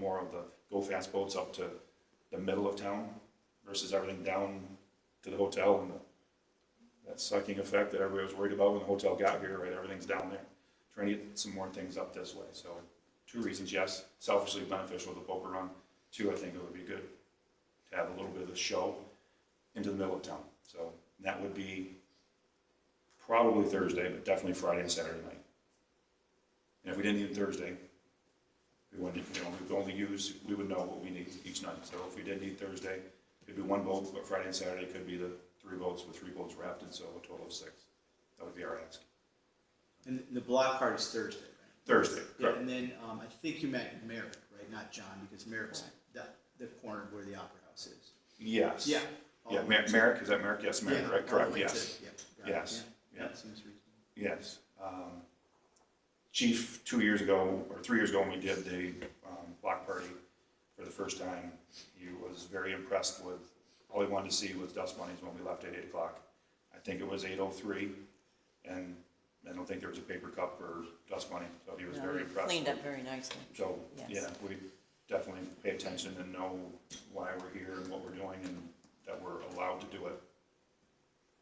more of the go-fast boats up to the middle of town versus everything down to the hotel and the, that sucking effect that everybody was worried about when the hotel got here, right, everything's down there. Trying to get some more things up this way, so two reasons, yes, selfishly beneficial to Boca Run, two, I think it would be good to have a little bit of a show into the middle of town, so that would be probably Thursday, but definitely Friday and Saturday night. And if we didn't need Thursday, we wouldn't, you know, we would only use, we would know what we need each night. So if we did need Thursday, it'd be one boat, but Friday and Saturday could be the three boats with three boats rafted, so a total of six. That would be our ask. And the block party is Thursday, right? Thursday, Yeah, correct? and then, um, I think you meant Merrick, right, not John, because Merrick's that, the corner where the Opera House is. Yes. Yeah. Yeah, Mer- Merrick, is that Merrick? Yes, Merrick, right, correct, yes, Yes, yeah. That seems reasonable. yes. Um, Chief, two years ago, or three years ago, when we did the, um, block party for the first time, he was very impressed with, all he wanted to see was dust bunnies when we left at eight o'clock. I think it was eight oh three, and I don't think there was a paper cup or dust bunny, so he was No, very it impressed. Cleaned up very nicely. So, Yes. yeah, we definitely pay attention and know why we're here and what we're doing and that we're allowed to do it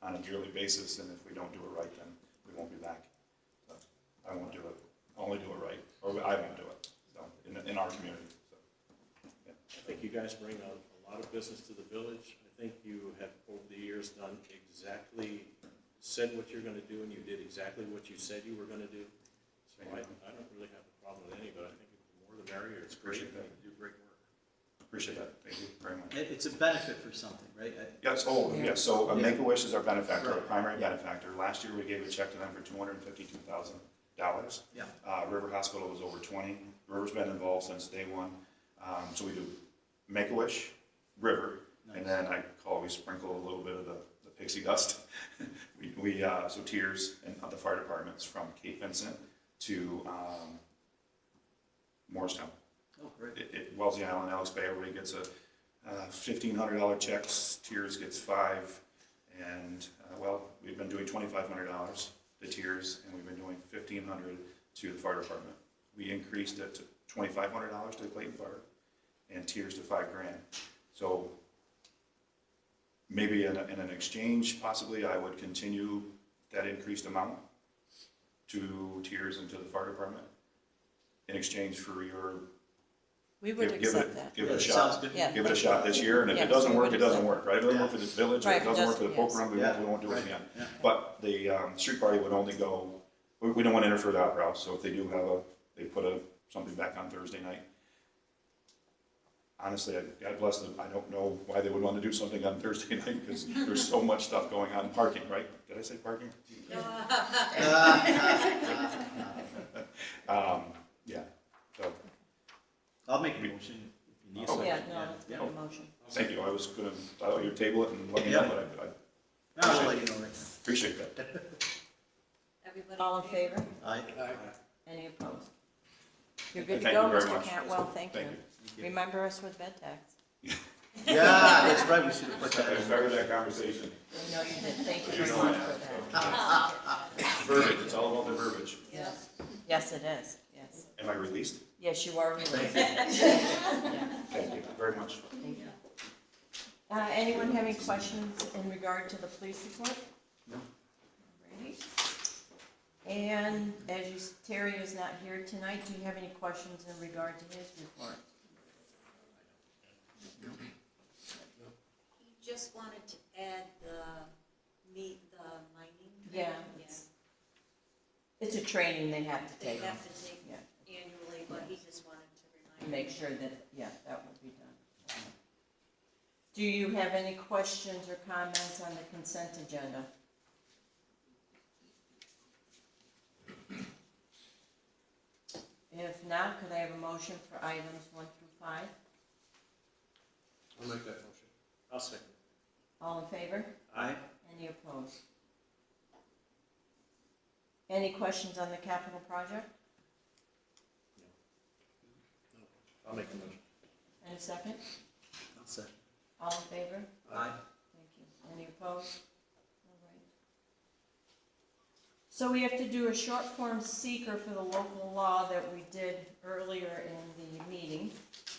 on a yearly basis, and if we don't do it right, then we won't be back. But I won't do it, I'll only do it right, or I won't do it, so, in, in our community, so. I think you guys bring a, a lot of business to the village. I think you have, over the years, done exactly, said what you're gonna do, and you did exactly what you said you were gonna do. So I, I don't really have a problem with any, but I think the more the merrier, it's great, and you do great work. Appreciate that, thank you very much. It, it's a benefit for something, right? I- Yes, oh, Yeah. yes, so uh, Yeah. Make-A-Wish is our benefactor, our Right. primary Yeah. benefactor. Last year, we gave a check to them for two hundred and fifty-two thousand dollars. Yeah. Uh, River Hospital was over twenty. River's been involved since day one. Um, so we do Make-A-Wish, River, and Nice. then I call, we sprinkle a little bit of the the pixie dust. We, we, uh, so tears and the fire departments from Cape Vincent to, um, Morristown Oh, great. it, it, Wellesley Island, Alex Bay, everybody gets a uh, fifteen hundred dollar checks, Tiers gets five. And, uh, well, we've been doing twenty-five hundred dollars to Tiers, and we've been doing fifteen hundred to the fire department. We increased it to twenty-five hundred dollars to the Clayton Fire, and Tiers to five grand. So maybe in, a- in an exchange, possibly, I would continue that increased amount to Tiers and to the fire department in exchange for your We would Give give accept it, that. give it a Yeah, sounds shot. good. Yeah. Give it a shot this year, and if it Yes, doesn't we work, would it doesn't accept. work, right? If it doesn't work for the village, or Right, it it doesn't work for the doesn't, poker yes. room, we won't, we won't do it Right, again. yeah. But the, um, street party would only go, we, we don't want to interfere with the opera house, so if they do have a, they put a, something back on Thursday night. Honestly, I- God bless them, I don't know why they would want to do something on Thursday night, because there's so much stuff going on, parking, right? Did I say parking? Uh, Um, yeah, so, I'll make a motion if you need Oh, something. Yeah, no, it's Yeah. not a motion. thank you, I was gonna, I thought you'd table it and let me Yeah. know, but I, I No, I'll let you know right now. appreciate that. Everybody All in favor? I, Any opposed? You're good to Thank you go, very Mr. much. Cantwell, thank you. Thank you. Remember us with bed tax. yeah, that's right, we should have put that I in. started that conversation. No, you did, thank you You very know I much for have, that. so. Verbiage, it's all about the verbiage. Yes. Yes, it is, yes. Am I released? Yes, you are Thank released. you. Thank you very much. Thank you. Uh, anyone have any questions in regard to the police report? No. Alrighty. And as you, s- Terry is not here tonight, do you have any questions in regard to his report? You just wanted to add the meet, the mining. Yeah. Yes. It's a training they have to They take, have to take yeah, annually, but he just wanted to to remind. make sure that, yeah, that will be done. Do you have any questions or comments on the consent agenda? If not, could I have a motion for items one through five? I'll make that motion. I'll second. All in favor? I, Any opposed? Any questions on the capital project? I'll make the motion. And a second? I'll say, All in favor? I, Thank you. Any opposed? All right. So we have to do a short form seeker for the local law that we did earlier in the meeting.